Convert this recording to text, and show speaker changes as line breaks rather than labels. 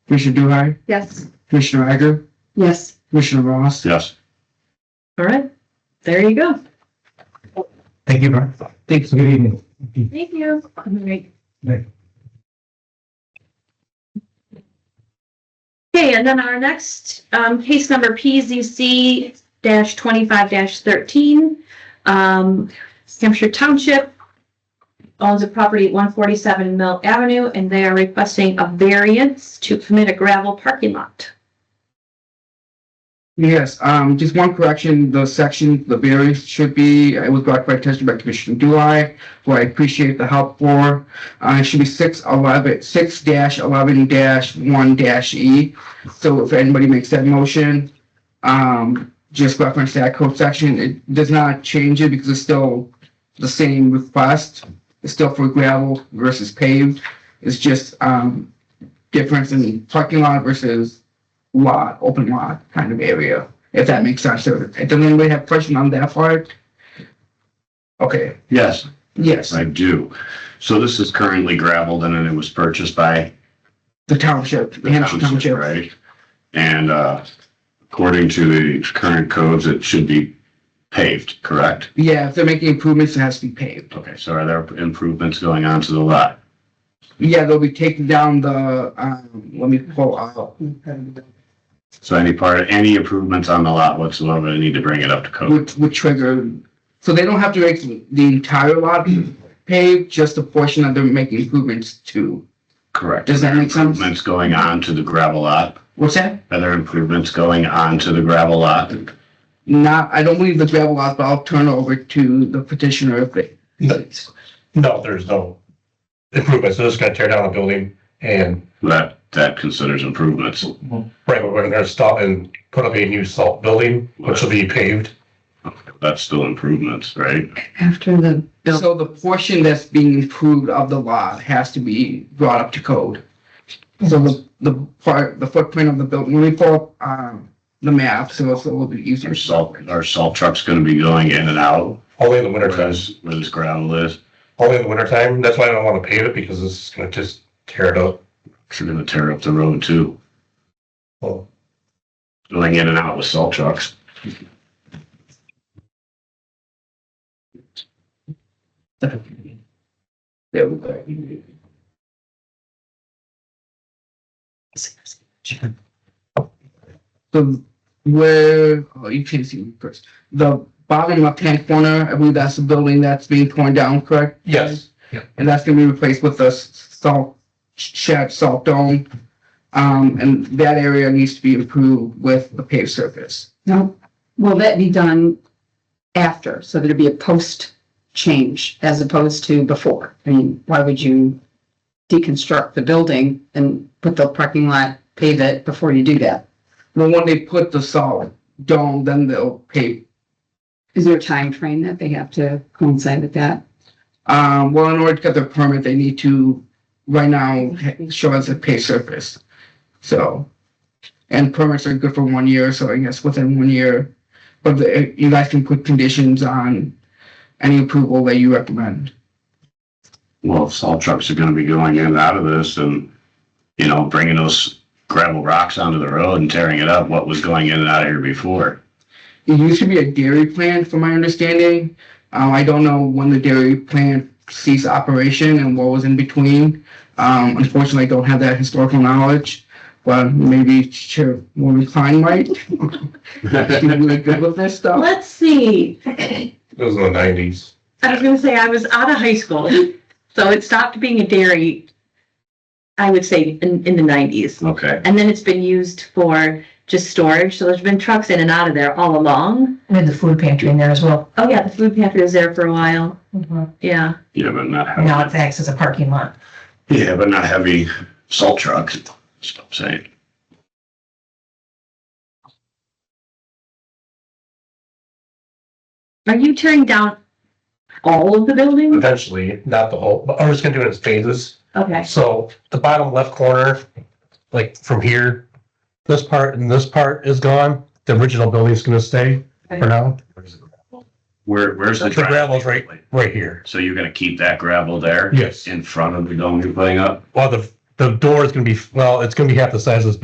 Commissioner Duhai,
Yes.
Commissioner Egger,
Yes.
Commissioner Ross.
Yes.
All right. There you go.
Thank you, Brian. Thanks. Good evening.
Thank you. All right.
Nick.
Okay, and then our next um, case number PZC dash twenty-five dash thirteen. Um, Hampshire Township owns a property at one forty-seven Mill Avenue, and they are requesting a variance to permit a gravel parking lot.
Yes, um, just one correction, the section, the variance should be, uh, it was brought by tested by Commissioner Duhai, who I appreciate the help for. Uh, it should be six eleven, six dash eleven dash one dash E. So if anybody makes that motion, um, just reference that code section. It does not change it because it's still the same request. It's still for gravel versus paved. It's just, um, difference in parking lot versus lot, open lot kind of area, if that makes sense. So, Does anybody have question on that part? Okay,
Yes,
yes,
I do. So this is currently gravelled and then it was purchased by
the township, the
the
Hampshire
township,
Township.
right? And, uh, according to the current codes, it should be paved, correct?
Yeah, if they're making improvements, it has to be paved.
Okay, so are there improvements going on to the lot?
Yeah, they'll be taking down the, um, let me pull out.
So any part, any improvements on the lot whatsoever, they need to bring it up to code?
would, would trigger, so they don't have to make the entire lot paved, just the portion that they're making improvements to.
Correct.
Does that make sense?
Improvements going on to the gravel lot?
What's that?
Are there improvements going on to the gravel lot?
Not, I don't believe the gravel lot, but I'll turn it over to the petitioner if they,
No, there's no improvements. They're just gonna tear down the building and
That, that considers improvements.
right, we're gonna stop and put up a new salt building, which will be paved.
That's still improvements, right?
After the building,
So the portion that's being improved of the lot has to be brought up to code. So the, the part, the footprint of the building, let me pull up, um, the map, so it's a little bit easier.
Our salt, our salt truck's gonna be going in and out
Only in the winter
where
time,
this, where this gravel is.
only in the winter time. That's why I don't wanna pave it because it's gonna just tear it up.
It's gonna tear up the road too,
Well,
going in and out with salt trucks.
There we go. So where, oh, you can't see me first. The bottom left-hand corner, I believe that's the building that's being torn down, correct?
Yes.
and that's gonna be replaced with a s- salt shed, salt dome. Um, and that area needs to be improved with the paved surface.
no, will that be done after? So there'd be a post change as opposed to before? I mean, why would you deconstruct the building and put the parking lot, pave it before you do that?
Well, when they put the salt dome, then they'll pave.
Is there a time frame that they have to coincide with that?
Um, well, in order to get their permit, they need to, right now, ha- show us a paved surface. So, and permits are good for one year, so I guess within one year. But the, you guys can put conditions on any approval that you recommend.
Well, if salt trucks are gonna be going in and out of this and, you know, bringing those gravel rocks onto the road and tearing it up, what was going in and out of here before?
It used to be a dairy plant, from my understanding. Um, I don't know when the dairy plant ceased operation and what was in between. Um, unfortunately, I don't have that historical knowledge, but maybe Chairwoman Klein might. She's really good with this stuff.
Let's see.
it was in the nineties.
I was gonna say I was out of high school, so it stopped being a dairy. I would say in, in the nineties,
Okay,
and then it's been used for just storage. So there's been trucks in and out of there all along.
We had the food pantry in there as well.
Oh yeah, the food pantry was there for a while.
Now
Yeah,
yeah, but not
it
heavy,
acts as a parking lot.
yeah, but not heavy salt trucks, that's what I'm saying.
are you tearing down all of the building?
Eventually, not the whole, but I'm just gonna do it in phases.
Okay,
So the bottom left corner, like from here, this part and this part is gone. The original building's gonna stay for now.
Where, where's the
The gravel's right,
driveway?
right here.
So you're gonna keep that gravel there?
Yes.
In front of the dome you're putting up?
Well, the the door is gonna be, well, it's gonna be half the size of this